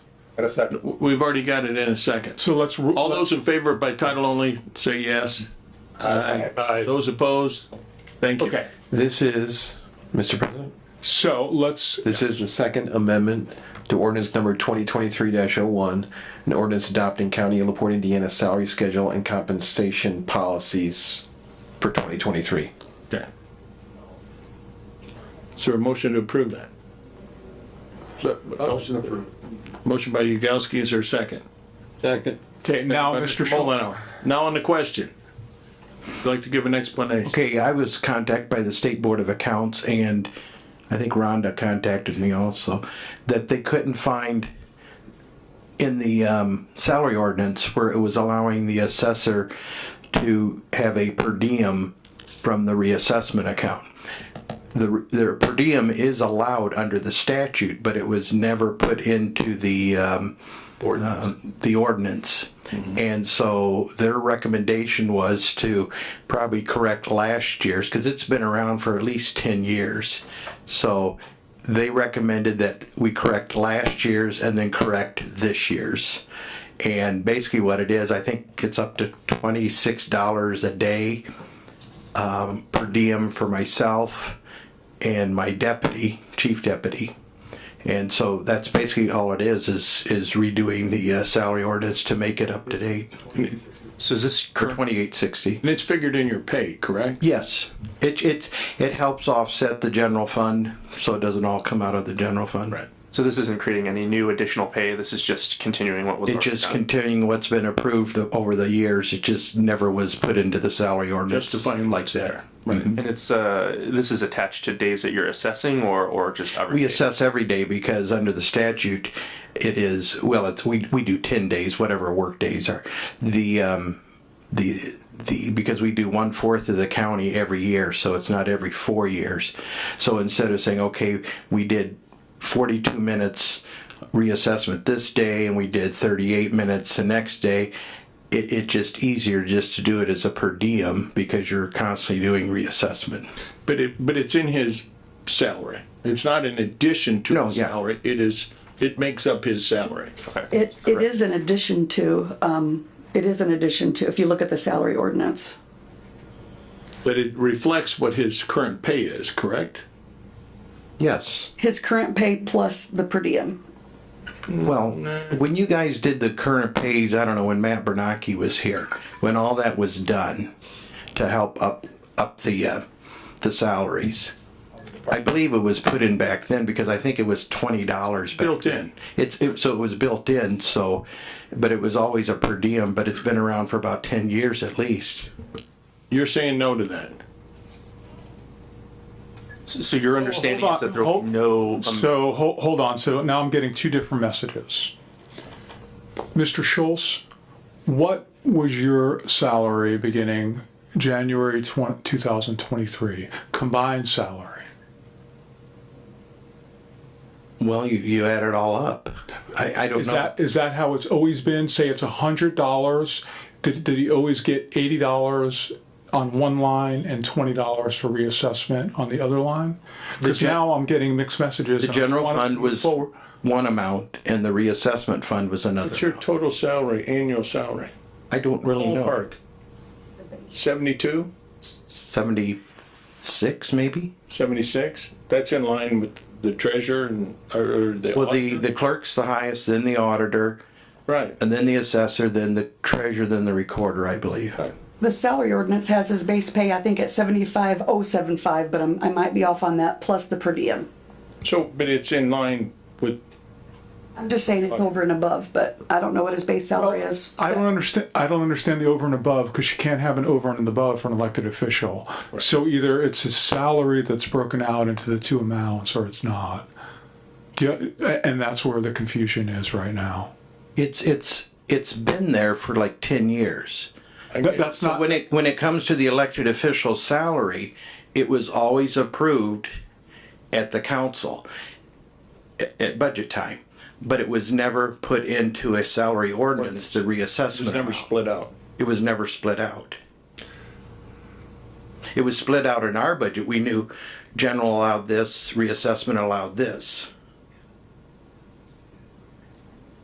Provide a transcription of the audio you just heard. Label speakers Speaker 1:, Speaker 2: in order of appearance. Speaker 1: and a second.
Speaker 2: We've already got it in a second.
Speaker 3: So let's, ru-
Speaker 2: All those in favor by title only, say yes.
Speaker 1: Aye.
Speaker 2: Those opposed, thank you.
Speaker 3: okay,
Speaker 4: This is, Mr. President,
Speaker 3: so let's,
Speaker 4: this is the second amendment to ordinance number twenty twenty-three oh one an ordinance adopting county of LaPorte, Indiana salary schedule and compensation policies for twenty twenty-three.
Speaker 2: Okay. Is there a motion to approve that? uh,
Speaker 1: Motion approved.
Speaker 2: Motion by Yagowski, is there a second?
Speaker 1: Second.
Speaker 3: okay, now,
Speaker 2: By
Speaker 3: Mr. Schultz.
Speaker 2: Mullenhour. Now on the question. Would you like to give an explanation?
Speaker 5: Okay, I was contacted by the State Board of Accounts and I think Rhonda contacted me also, that they couldn't find in the um, salary ordinance where it was allowing the assessor to have a per diem from the reassessment account. The, their per diem is allowed under the statute, but it was never put into the, um, um, the ordinance. And so their recommendation was to probably correct last year's, because it's been around for at least 10 years. So they recommended that we correct last year's and then correct this year's. And basically what it is, I think it's up to $26 a day um, per diem for myself and my deputy, chief deputy. And so that's basically all it is, is, is redoing the uh, salary ordinance to make it up to date
Speaker 4: So is this
Speaker 5: for twenty-eight sixty.
Speaker 2: And it's figured in your pay, correct?
Speaker 5: Yes, it, it, it helps offset the general fund, so it doesn't all come out of the general fund.
Speaker 2: Right.
Speaker 6: So this isn't creating any new additional pay. This is just continuing what was.
Speaker 5: It's
Speaker 6: already
Speaker 5: just
Speaker 6: done.
Speaker 5: continuing what's been approved the- over the years, it just never was put into the salary ordinance.
Speaker 2: Justifying
Speaker 5: like
Speaker 2: what's
Speaker 5: that.
Speaker 2: there. Right.
Speaker 6: and it's uh this is attached to days that you're assessing or or just every.
Speaker 5: We
Speaker 6: day?
Speaker 5: assess every day because under the statute, it is, well, it's, we, we do ten days, whatever work days are. The, um, the, the, because we do one fourth of the county every year, so it's not every four years. So instead of saying, okay, we did forty-two minutes reassessment this day and we did thirty-eight minutes the next day, it, it just easier just to do it as a per diem because you're constantly doing reassessment.
Speaker 2: But it, but it's in his salary. It's not in addition to
Speaker 5: No,
Speaker 2: his
Speaker 5: yeah.
Speaker 2: salary. It is, it makes up his salary.
Speaker 7: It, it is an addition to, um, it is an addition to, if you look at the salary ordinance.
Speaker 2: But it reflects what his current pay is, correct?
Speaker 5: Yes.
Speaker 7: His current pay plus the per diem.
Speaker 5: Well, when you guys did the current pays, I don't know, when Matt Bernanke was here, when all that was done to help up, up the, uh, the salaries. I believe it was put in back then because I think it was twenty dollars.
Speaker 2: Built in.
Speaker 5: It's, it, so it was built in, so, but it was always a per diem, but it's been around for about ten years at least.
Speaker 2: You're saying no to that.
Speaker 6: So your understanding
Speaker 3: Hold
Speaker 6: is
Speaker 3: on,
Speaker 6: that there will
Speaker 3: hold-
Speaker 6: be no um,
Speaker 3: So, hold, hold on, so now I'm getting two different messages. Mr. Schultz, what was your salary beginning January twen- 2023, combined salary?
Speaker 5: Well, you, you add it all up. I, I don't
Speaker 3: Is
Speaker 5: know.
Speaker 3: that, is that how it's always been? Say it's $100, did, did he always get $80 on one line and $20 for reassessment on the other line? Because
Speaker 5: gen-
Speaker 3: now I'm getting mixed messages.
Speaker 5: The general fund was
Speaker 3: Forward.
Speaker 5: one amount and the reassessment fund was another.
Speaker 2: It's your
Speaker 5: amount.
Speaker 2: total salary, annual salary.
Speaker 5: I don't really know.
Speaker 2: Ballpark. Seventy-two,
Speaker 5: 76 maybe
Speaker 2: seventy-six? That's in line with the treasurer and, or or the.
Speaker 5: well the
Speaker 2: auditor.
Speaker 5: the clerk's the highest then the auditor
Speaker 2: Right.
Speaker 5: and then the assessor then the treasurer then the recorder i believe
Speaker 7: The salary ordinance has his base pay, I think, at seventy-five oh seven five, but I'm, I might be off on that, plus the per diem.
Speaker 2: So, but it's in line with,
Speaker 7: I'm just saying it's over and above, but I don't know what his base salary is.
Speaker 3: I don't understand. I don't understand the over and above because you can't have an over and an above for an elected official. So either it's his salary that's broken out into the two amounts, or it's not. Do you, a- and that's where the confusion is right now.
Speaker 5: it's it's it's been there for like 10 years
Speaker 3: That- that's not.
Speaker 5: when it when it comes to the elected official salary it was always approved at the council at, at budget time but it was never put into a salary ordinance the reassessment
Speaker 2: it's never
Speaker 5: amount.
Speaker 2: split out.
Speaker 5: It was never split out. It was split out in our budget. We knew general allowed this, reassessment allowed this.